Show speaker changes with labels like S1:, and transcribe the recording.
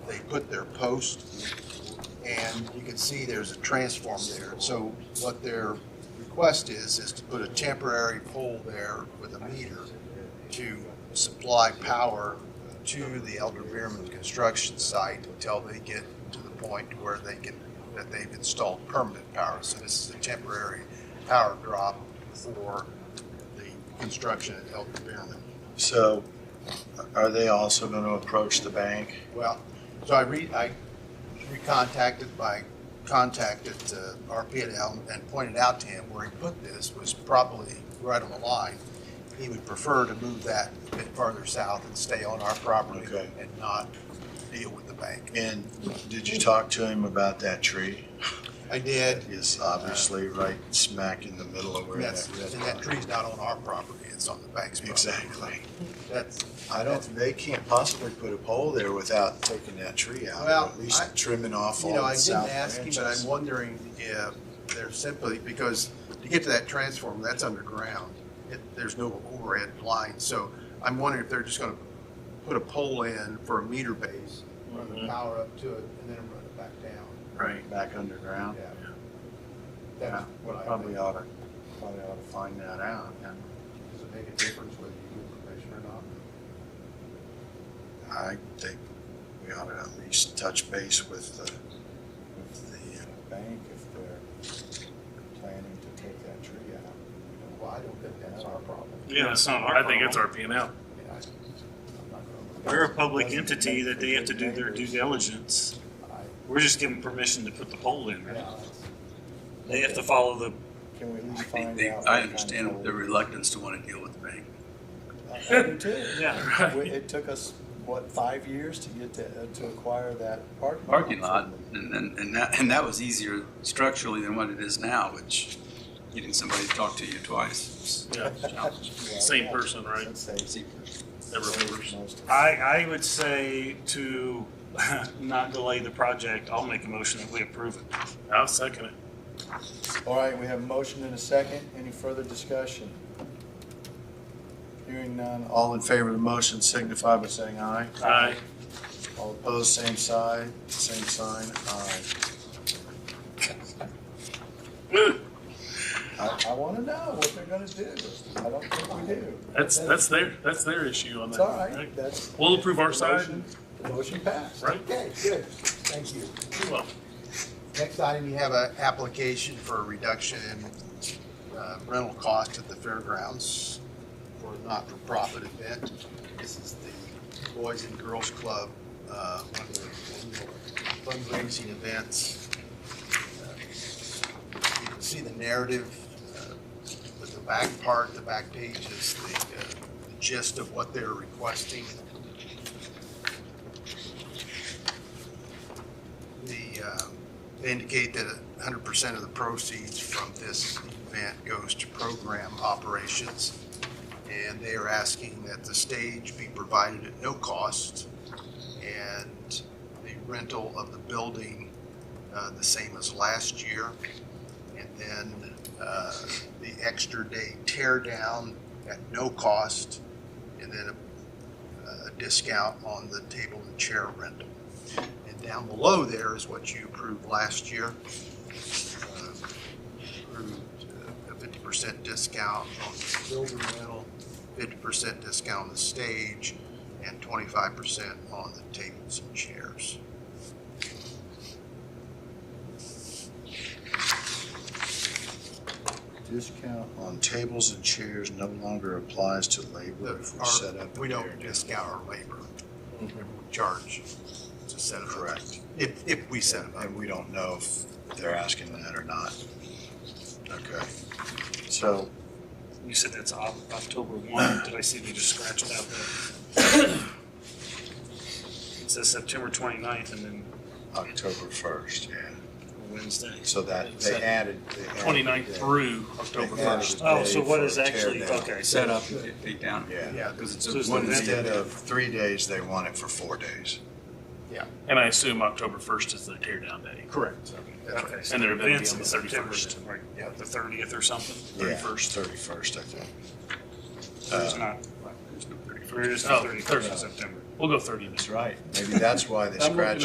S1: they put their post, and you can see there's a transform there. So what their request is, is to put a temporary pole there with a meter to supply power to the Elder Beerman construction site until they get to the point where they can, that they've installed permanent power. So this is a temporary power drop for the construction at Elder Beerman.
S2: So are they also going to approach the bank?
S1: Well, so I re, I recontacted my contact at uh, RPNL and pointed out to him where he put this was probably right on the line. He would prefer to move that a bit farther south and stay on our property
S2: Okay.
S1: and not deal with the bank.
S2: And did you talk to him about that tree?
S1: I did,
S2: It's obviously right smack in the middle of where that
S1: that's,
S2: red
S1: and that
S2: line.
S1: tree's not on our property, it's on the bank's property.
S2: Exactly.
S1: That's,
S2: I don't, they can't possibly put a pole there without taking that tree out,
S1: Well,
S2: or at least
S1: I-
S2: trimming off all
S1: You know, I didn't
S2: the south
S1: ask him, but I'm
S2: branches.
S1: wondering if they're simply, because to get to that transformer, that's underground. It, there's no overhead line, so I'm wondering if they're just gonna put a pole in for a meter base, run the
S2: Mhm.
S1: power up to it, and then run it back down.
S2: Right, back underground.
S1: Yeah.
S2: Yeah,
S1: That's what I
S2: probably
S1: think,
S2: ought to, probably ought to find that out. yeah.
S1: does it make a difference whether you give permission or not?
S2: I think we ought to at least touch base with the, with the uh, bank if they're planning to take that tree out.
S1: Well, I don't think that's our problem.
S3: Yeah, that's not our
S4: I think it's
S3: problem.
S4: our P and L.
S1: I mean, I- I'm not gonna-
S3: We're a public entity that they have to do their due diligence.
S1: I-
S3: We're just given permission to put the poll in.
S1: yeah,
S3: right?
S1: that's-
S3: They have to follow the,
S2: Can we at least
S5: They-
S2: find
S5: they-
S2: out? what
S5: I
S2: kind of
S5: understand their reluctance to want to deal with the bank.
S2: pole- I- I do too.
S3: yeah,
S2: We- It took us, what, five years to get to, to acquire that parking? lot
S5: Parking lot,
S2: from them.
S5: and, and, and that, and that was easier structurally than what it is now, which getting somebody to talk to you twice.
S4: Yeah,
S2: Yeah,
S4: Same
S2: yeah.
S4: person, right?
S2: Let's say
S5: is-
S4: that remembers.
S2: most of-
S3: I, I would say to not delay the project, I'll make a motion that we approve it.
S4: I'll second it.
S2: All right, we have a motion and a second. Any further discussion? Hearing none. All in favor of the motion signify by saying aye.
S4: Aye.
S2: All opposed, same side, same sign, aye. I, I wanna know what they're gonna do. I don't think we do.
S4: That's, that's their, that's their issue on
S2: It's
S4: that.
S2: all right, that's.
S4: We'll approve our
S2: the
S4: side.
S2: motion- The motion passed.
S4: Right?
S1: Okay, good, thank you.
S4: Well,
S1: Next item, you have an application for a reduction in uh, rental cost at the fairgrounds for a not-for-profit event. This is the Boys and Girls Club, uh, one of their annual fundraising events. Uh, You can see the narrative, uh, with the back part, the back page is the uh, gist of what they're requesting. The, um, they indicate that hundred percent of the proceeds from this event goes to program operations. And they are asking that the stage be provided at no cost and the rental of the building, uh, the same as last year. And then, uh, the extra day tear down at no cost and then a, a discount on the table and chair rental. And down below there is what you approved last year. Uh, Approved uh, a fifty percent discount on the building rental, fifty percent discount on the stage, and twenty-five percent on the tables and chairs.
S2: Discount on tables and chairs no longer applies to labor
S1: The-
S2: if we
S1: our-
S2: set up.
S1: We
S2: a
S1: don't
S2: area.
S1: discount our labor, we charge to set it up.
S2: Correct.
S1: If, if we set it up.
S2: And we don't know if they're asking that or not. Okay. So
S3: You said that's Oc- October one. Did I see they just scratched out the? It says September 29th and then
S2: October first, yeah.
S3: Wednesday.
S2: So that, they
S4: Except
S2: added. they added
S4: Twenty-ninth
S2: that.
S4: through October
S2: They added
S4: first.
S2: a
S3: Oh,
S2: day
S3: so what
S2: for
S3: is
S2: a tear
S3: actually,
S2: down.
S3: okay, so
S5: Set up and get take down.
S2: Yeah.
S1: Yeah,
S5: Because it's
S3: So it's
S5: a
S3: the
S5: one
S3: event.
S5: day.
S2: Instead of three days, they want it for four days.
S4: And I assume October first is their tear down day.
S1: correct. That's right.
S3: Okay, so
S4: And
S3: their
S4: their event
S3: events
S4: will
S3: in
S4: be on the
S3: September,
S4: 31st.
S3: then, like, yeah, the thirtieth or something.
S2: Thirty-first. Thirty-first, I think.
S3: There's not,
S5: There's no 31st.
S3: there is
S4: Oh,
S3: the Uh, thirty-first of September.
S4: We'll go thirty then.
S2: That's right. Maybe that's why they
S4: I'm looking
S2: scratched